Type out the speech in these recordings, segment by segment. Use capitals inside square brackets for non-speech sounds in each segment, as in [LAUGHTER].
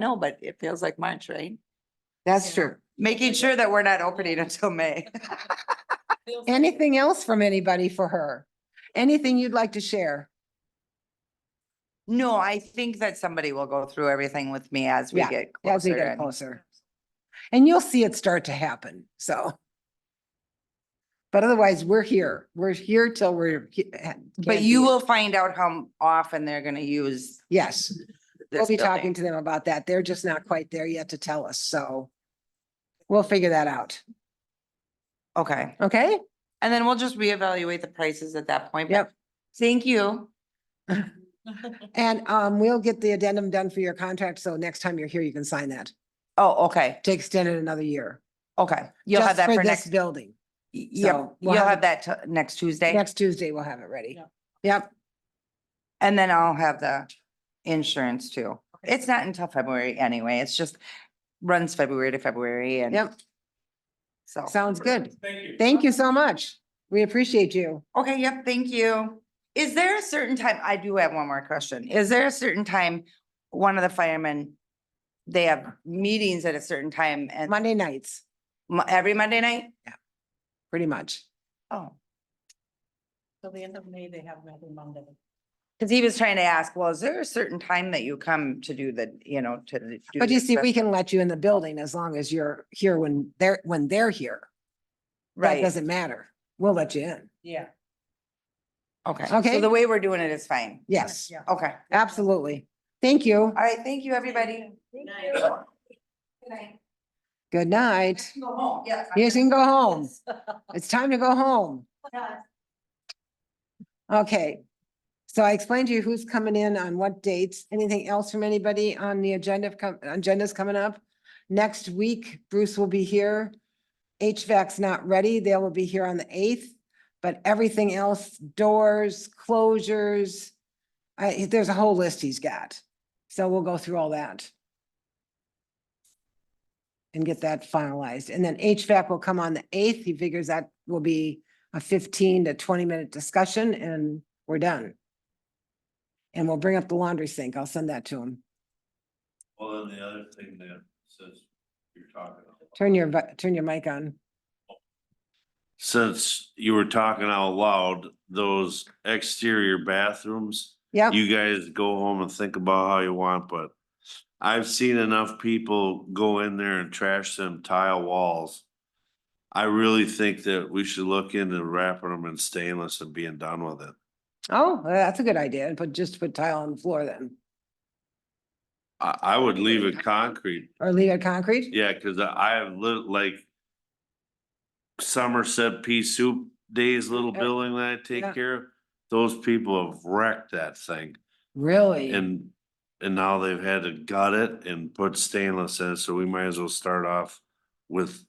know, but it feels like March, right? That's Yeah. true. Making sure that we're not opening until [LAUGHS] May. Anything else from anybody for her? Anything you'd like to share? No, I think that somebody will go through everything with me as we Yeah, get As we closer. get and- closer. And you'll see it start to happen, so. But otherwise, we're here. We're here till we're. he- can But be. you will find out how often they're gonna use Yes, we'll this be talking building. to them about that. They're just not quite there yet to tell us, so. We'll figure that out, Okay, okay? and then we'll just reevaluate the prices at that point. but Yep. Thank you. And um, we'll get the addendum done for your contract, so next time you're here, you can sign that Oh, okay, to extend it another year. okay. You'll have just that for this next, Building. yep, so we'll you'll have have that t- next Tuesday. Next Tuesday, we'll have it ready. Yeah. Yep, And then I'll have the insurance too. It's not until February anyway. It's just runs February to February and yep, so. sounds good. Thank you. Thank you so much. We appreciate you. Okay, yep, thank you. Is there a certain time, I do have one more question. Is there a certain time, one of the firemen, they have meetings at a certain time and Monday nights, mo- every Monday night? pretty much. Oh, Till the end of May, they have another Monday. because he was trying to ask, well, is there a certain time that you come to do the, you know, to the- do? But you the see, we assess- can let you in the building as long as you're here when they're, when they're here. That Right, doesn't matter. We'll let you in. Yeah. okay. Okay. So the way we're doing it is fine. Yes, Yeah. Okay. absolutely. Thank you. All right, thank you, everybody. Good Night. night. Good You night. can Go home, yes. I'm Yes, you can go home. Yes. It's time to go home. Yes. Okay. So I explained to you who's coming in on what dates. Anything else from anybody on the agenda, of com- agendas coming up? Next week, Bruce will be here. HVAC's not ready. They will be here on the eighth, but everything else, doors, closures. I, there's a whole list he's got. So we'll go through all that. And get that finalized. And then HVAC will come on the eighth. He figures that will be a fifteen to twenty minute discussion and we're done. And we'll bring up the laundry sink. I'll send that to him. Well, then the other thing that says you're talking. about- Turn your, vi- turn your mic on. Since you were talking out loud, those exterior bathrooms, Yep, you guys go home and think about how you want, but. I've seen enough people go in there and trash them tile walls. I really think that we should look into wrapping them in stainless and being done with it. oh, that's a good idea, but just put tile on the floor then, I, I would leave it concrete or leave it concrete? Yeah, cause I- I have lit like. Somerset pea soup days, little Yeah. building that I take Yeah. care of, those people have wrecked that thing Really? and. And now they've had to gut it and put stainless in, so we might as well start off with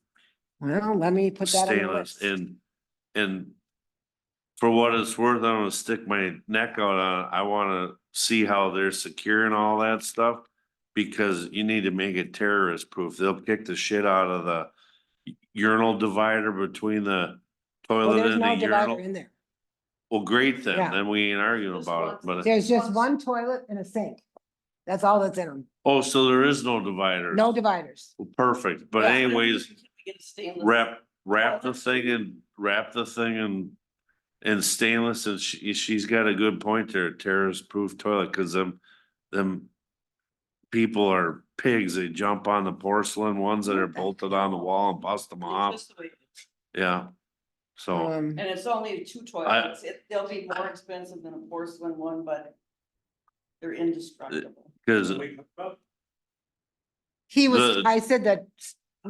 Well, let me put that on the stainless list. and, and. For what it's worth, I'm gonna stick my neck out on, it. I wanna see how they're securing all that stuff. Because you need to make it terrorist proof. They'll kick the shit out of the urinal divider between the Well, toilet there's and the no divider urinal. in there. Well, great then, Yeah. then we ain't arguing Just about it, one. but, There's just one toilet and a sink. That's all that's in them. oh, so there is no divider. No dividers. Well, Perfect, but Yeah. anyways. Get a stainless- wrap, wrap Oh, the thing in, wrap the thing in, in stainless and she, she's got a good point there, terrorist proof toilet, cause them, them people are pigs, they jump on the porcelain ones that are bolted on the wall and bust them off, It's just the way- yeah. So, Um, And it's only two toilets. It- They'll be more expensive than a porcelain one, but they're indestructible. cause He was, the- I said that,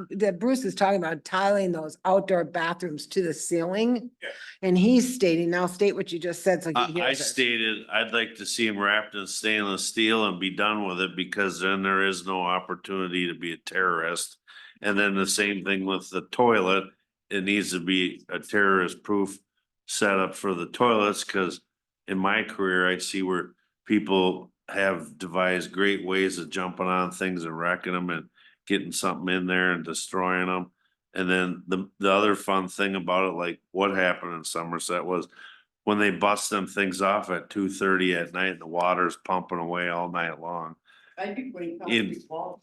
that Bruce is talking about tiling those outdoor bathrooms to the ceiling. Yeah. And he's stating, now state what you just said, so he I, I hears us. stated, I'd like to see them wrapped in stainless steel and be done with it, because then there is no opportunity to be a terrorist. And then the same thing with the toilet, it needs to be a terrorist proof setup for the toilets, cause in my career, I see where people have devised great ways of jumping on things and wrecking them and getting something in there and destroying them. And then the, the other fun thing about it, like what happened in Somerset was when they bust them things off at two thirty at night, the water's pumping away all night long. I do when it comes In- to these walls.